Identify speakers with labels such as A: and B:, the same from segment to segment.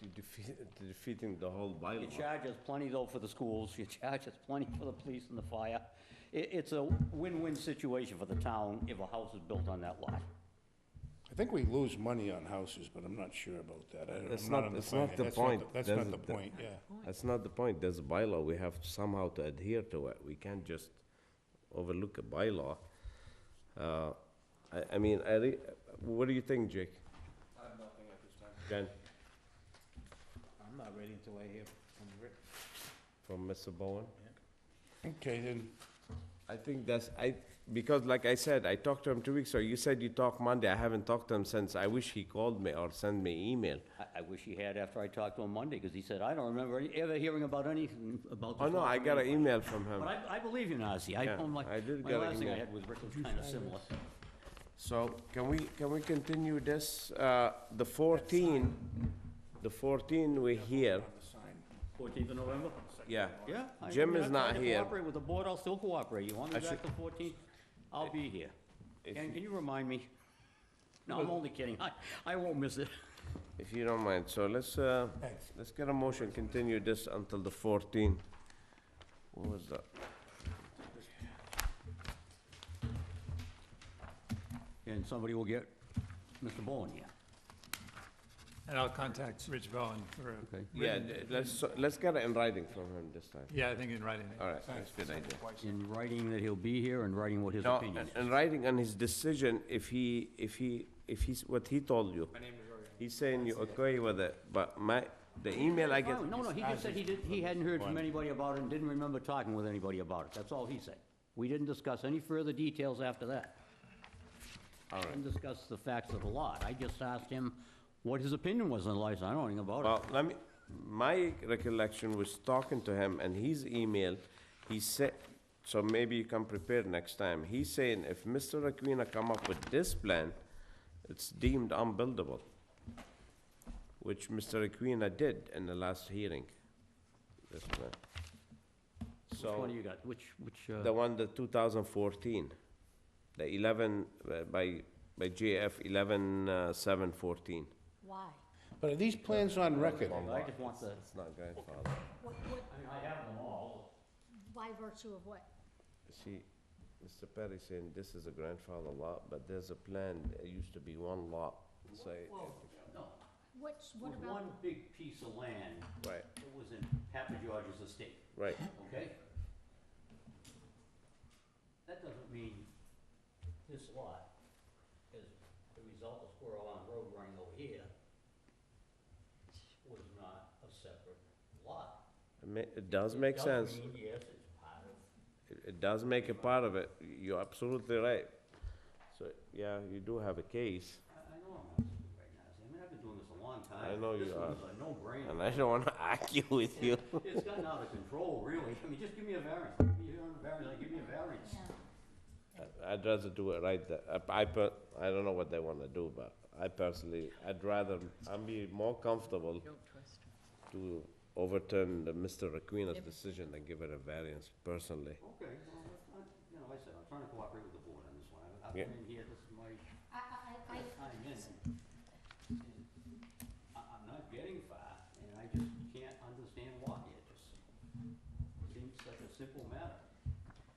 A: you're defeat- defeating the whole bylaw.
B: You charge us plenty though for the schools, you charge us plenty for the police and the fire. It, it's a win-win situation for the town if a house is built on that lot.
C: I think we lose money on houses, but I'm not sure about that. I don't- I'm
A: That's not-
C: on
A: that's not
C: finance.
A: the
C: That's
A: point.
C: That's
A: That's
C: not the
A: the-
C: point, yeah.
A: That's not the point. There's a bylaw. We have somehow to adhere to it. We can't just overlook a bylaw. Uh, I, I mean, I, re- what do you think, Jake? I have nothing at this time. Jen,
D: I'm not ready until I hear from Rick.
A: from Mr. Bowen?
C: Okay, then,
A: I think that's, I, because like I said, I talked to him two weeks ago. You said you talked Monday. I haven't talked to him since. I wish he called me or sent me email.
B: I, I wish he had after I talked to him Monday, because he said, I don't remember any- ever hearing about anything about this.
A: Oh, no,
B: lot
A: I
B: from
A: got an
B: anybody."
A: email from him.
B: But I, I believe you, Nazzy. I
A: Yeah,
B: told my,
A: I did
B: my
A: get an
B: last thing I
A: email.
B: had was Rick was kind of similar.
A: So can we, can we continue this? Uh, The 14, the 14 we're here,
B: Fourteenth of November?
A: yeah.
B: Yeah. I-
A: Jim
B: I mean,
A: is
B: I
A: not
B: tried to
A: here.
B: Cooperate with the board, I'll still cooperate. You want me
A: I
B: back
A: should-
B: the fourteenth? I'll be here.
A: If
B: Ken, can you remind me? No, I'm only kidding. I, I won't miss it.
A: If you don't mind, so let's, uh,
C: Thanks.
A: let's get a motion, continue this until the 14. What was that?
B: And somebody will get Mr. Bowen here.
E: And I'll contact Rich Bowen for, a-
B: Okay.
A: Yeah, let's, let's get it in writing from him this time.
E: yeah, I think in writing.
A: All right, that's a good idea.
B: In writing that he'll be here and writing what his
A: No,
B: opinion is.
A: in writing on his decision, if he, if he, if he's, what he told you. My name is He's saying you agree with it, but my, the email I get.
B: Oh, No, no, he just said he didn't, he hadn't heard from anybody about it and didn't remember talking with anybody about it. That's all he said. We didn't discuss any further details after that. I Didn't discuss the facts of the lot. I just asked him what his opinion was on the license. I don't know anything about
A: Well, let me, my recollection was talking to him and his email, he said, so maybe you can prepare next time. He's saying if Mr. Aquina come up with this plan, it's deemed unbuildable, which Mr. Aquina did in the last hearing. This plan.
B: it. Which one do you got? Which, which, uh,
A: The one, the 2014, the 11, uh, by, by JF 11, uh, 714.
F: Why?
C: but are these plans on record?
B: I just want the,
A: It's not grandfather.
F: What, what,
B: I mean, I have them all.
F: by virtue of what?
A: See, Mr. Perry saying this is a grandfather lot, but there's a plan, it used to be one lot, say,
B: Well, no,
F: What's,
B: it
F: what
B: was
F: about?
B: one big piece of land.
A: right,
B: It was in Papa George's estate.
A: right.
B: Okay? That doesn't mean this lot is the result of Squirrel Island Road running over here was not a separate lot.
A: It ma- It does make
B: does
A: sense,
B: mean, Yes, it's part of,
A: it it does make a part of it, you're absolutely right. So, yeah, you do have a case,
B: I I know I'm not stupid right now, see, I mean, I've been doing this a long time.
A: I know you are.
B: This one's a no-brainer.
A: and I don't wanna argue with you.
B: It's gotten out of control, really. I mean, just give me a variance. Give me a variance, like, give me a variance.
A: I'd rather do it right, th- I, I per, I don't know what they wanna do, but I personally, I'd rather, I'd be more comfortable to overturn the Mr. Aquino's decision than give it a variance personally.
B: Okay, well, that's not- you know, like I said, I'm trying to cooperate with the board on this one. I've- I've
A: Yeah.
B: been in here, this is my
F: I, I, I, I-
B: time in. and I, I'm not getting far, and I just can't understand why. It just seems such a simple matter.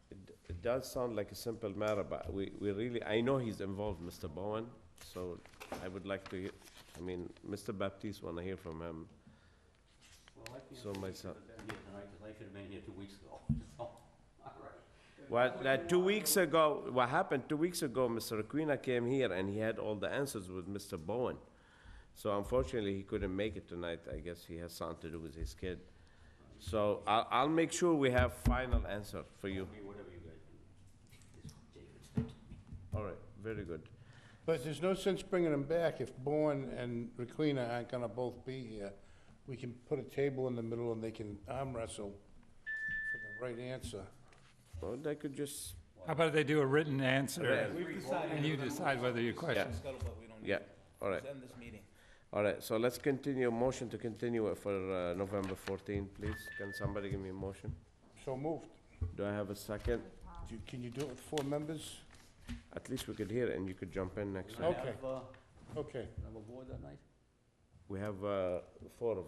A: It d- it does sound like a simple matter, but we, we really, I know he's involved, Mr. Bowen, so I would like to, hear- I mean, Mr. Baptiste, wanna hear from him.
B: Well, I can't
A: So
B: believe
A: myself-
B: I've been here tonight, because I should have been here two weeks ago, so, all right.
A: Well, that two weeks ago, what happened, two weeks ago, Mr. Aquina came here and he had all the answers with Mr. Bowen. So unfortunately, he couldn't make it tonight, I guess he has something to do with his kid. So I'll, I'll make sure we have final answer for you.
B: I mean, whatever you guys do. It's David's to me.
A: All right, very good.
C: But there's no sense bringing them back if Bowen and Requena aren't gonna both be here. We can put a table in the middle and they can arm wrestle for the right answer.
A: Well, they could just,
E: How about they do a written answer,
D: We've decided.
E: and you decide whether you question?
D: Scuttlebutt, we don't need.
A: yeah,
D: it.
A: all right.
D: Let's end this meeting.
A: All right, so let's continue, motion to continue it for uh, November 14, please. Can somebody give me a motion?
C: So moved.
A: Do I have a second?
C: Do you- Can you do it with four members?
A: At least we could hear it and you could jump in next
B: Can I
A: time.
C: Okay.
B: have, uh,
C: Okay.
B: can I have a board that night?
A: We have uh, four of us.